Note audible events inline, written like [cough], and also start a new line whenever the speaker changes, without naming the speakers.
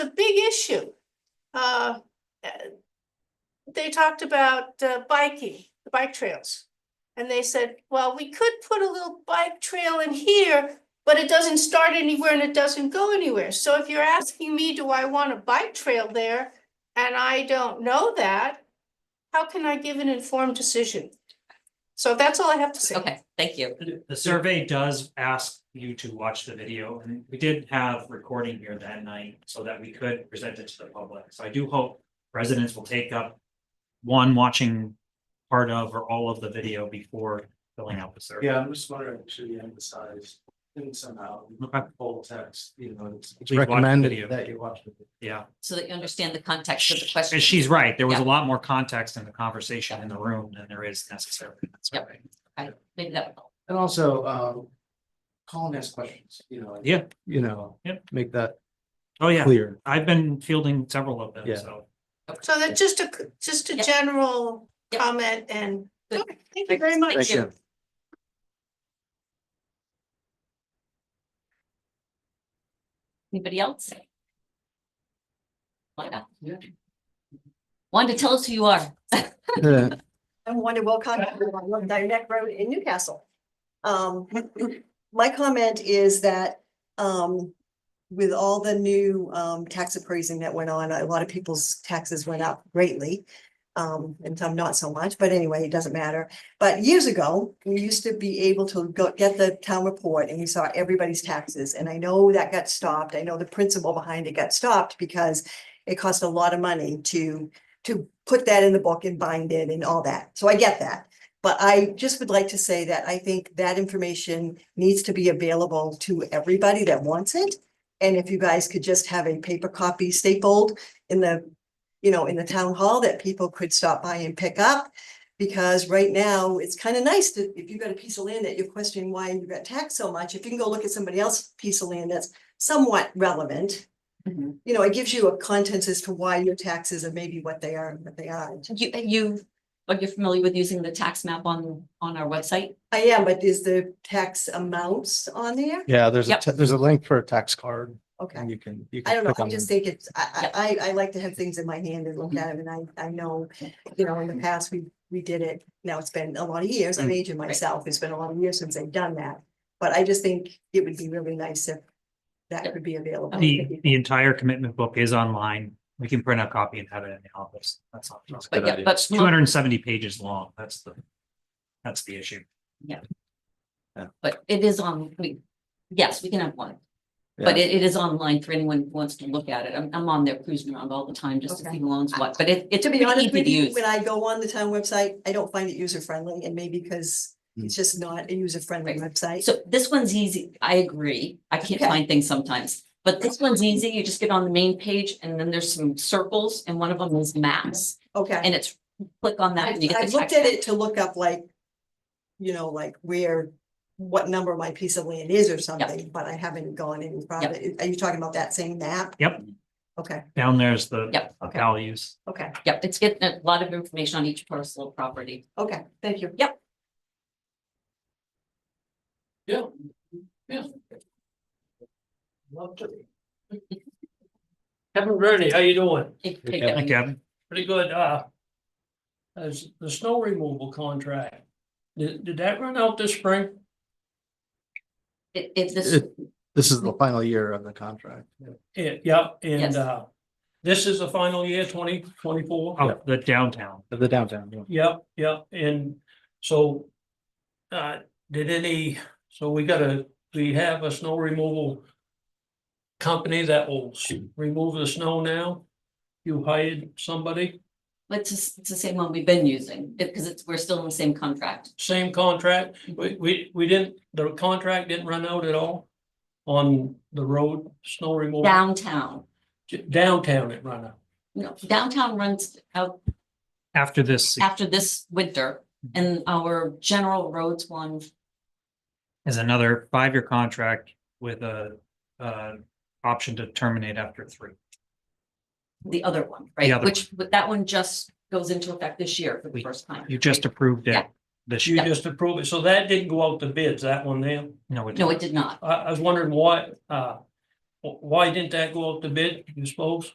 a big issue. Uh, uh, They talked about uh, biking, the bike trails. And they said, well, we could put a little bike trail in here, but it doesn't start anywhere and it doesn't go anywhere. So if you're asking me, do I want a bike trail there? And I don't know that, how can I give an informed decision? So that's all I have to say.
Okay, thank you.
The- The survey does ask you to watch the video, and we did have recording here that night so that we could present it to the public. So I do hope residents will take up one, watching part of or all of the video before filling out the survey.
Yeah, I'm just wondering, should we emphasize in somehow,
Okay.
full text, you know, it's.
Please watch the video.
That you watch. it.
Yeah,
So that you understand the context of Uh, the question.
and she's right. There was a
Yeah.
lot more context in the conversation in the room than there is necessarily in that
Yep.
survey.
I- Maybe that would help.
And also, um, call and ask questions, you know. and,
Yeah.
You know.
Yep.
Make that
Oh, yeah,
clear.
I've been fielding several of them,
Yeah.
so.
So that's just a, c- just a
Yep.
general
Yep.
comment and,
Good.
Okay, thank you very much.
Thank you. Anybody else? Wanda?
Yeah.
Wanda, tell us who you are.
[laughs] I'm Wanda Wilcox, I'm on Dyneck Road in Newcastle. Um, my comment is that, um, with all the new, um, tax appraising that went on, a lot of people's taxes went up greatly. Um, and some not so much, but anyway, it doesn't matter. But years ago, we used to be able to go get the town report and you saw everybody's taxes. And I know that got stopped. I know the principle behind it got stopped because it cost a lot of money to to put that in the book and bind it and all that. So I get that. But I just would like to say that I think that information needs to be available to everybody that wants it. And if you guys could just have a paper copy stapled in the, you know, in the town hall that people could stop by and pick up. Because right now, it's kind of nice to, if you've got a piece of land that you're questioning why you got taxed so much, if you can go look at somebody else's piece of land that's somewhat relevant.
Mhm.
You know, it gives you a contents as to why your taxes are maybe what they are and what they aren't.
You, you, but you're familiar with using the tax map on, on our website?
I am, but is the tax amounts on there?
Yeah, there's a,
Yep.
ta- there's a link for a tax card
Okay.
and you can, you can
I don't know,
click
I
on
just
them.
think it's, I, I, I- I like to have things in my hand and
Mm-hmm.
look at them, and I, I know, you know, in the past, we, we did it. Now it's been a lot of years,
Mm.
I'm aging myself, it's been a lot of years since I've done that, but I just think it would be really nice if that could be available.
The, the entire commitment book is online. We can print a copy and have it in the office. That's all.
But yeah, but
Two hundred and seventy pages long. That's the, that's the issue.
but it is on, we, yes, we can have one. But it, it is online for anyone who wants to look at it. I'm, I'm on there cruising around all the time just to see
Okay.
who owns what, but it, it's
To be
pretty
honest
easy
with
to
you,
use.
when I go on the town website, I don't find it user friendly, and maybe because
Mm.
it's just not a user friendly
Right.
website.
So this one's easy. I agree. I can't
Okay.
find things sometimes, but this one's easy. You just get on the main page and then there's some circles and one of them is maps.
Okay.
And it's click on that
I
and you
I
get the
looked
text.
at it to look up like, you know, like where, what number my piece of land is or something, but I haven't gone any farther. Are you talking about that same map?
Yep.
Okay,
Down there's the
Yep.
okay,
values.
okay,
Yep, it's getting a lot of information on each parcel of property.
okay, thank you.
Yeah, yeah. Love to.
Kevin Verde, how you doing?
It-
Okay.
it-
Hi, Kevin.
Pretty good, uh. As the snow removal contract, did, did that run out this spring?
It, it, this,
It- This is the final year of the contract.
Yeah, yeah,
Yes.
and, uh, this is the final year, twenty twenty-four?
Oh, the downtown.
The downtown. yeah.
Yep, yep, and so, uh, did any, so we gotta, we have a snow removal company that will s- remove the snow now? You hired somebody?
it's, just- it's the same one we've been using, because it's, we're still in the same contract.
same contract, we, we, we didn't, the contract didn't run out at all? On the road, snow removal?
Downtown,
Downtown it run out,
no, downtown runs out
After this
after this winter and our general roads one,
is another five-year contract with a, uh, option to terminate after three.
the other one,
The
right?
other
Which, but that one just goes into effect this year for the
We-
first time.
You just
right?
approved it
Yeah.
this
you
year.
just approve it, so that didn't go out to bids, that one there,
No, it
No, it
didn't.
did not.
I, I was wondering why, uh. Wh- Why didn't that go out to bid, you suppose?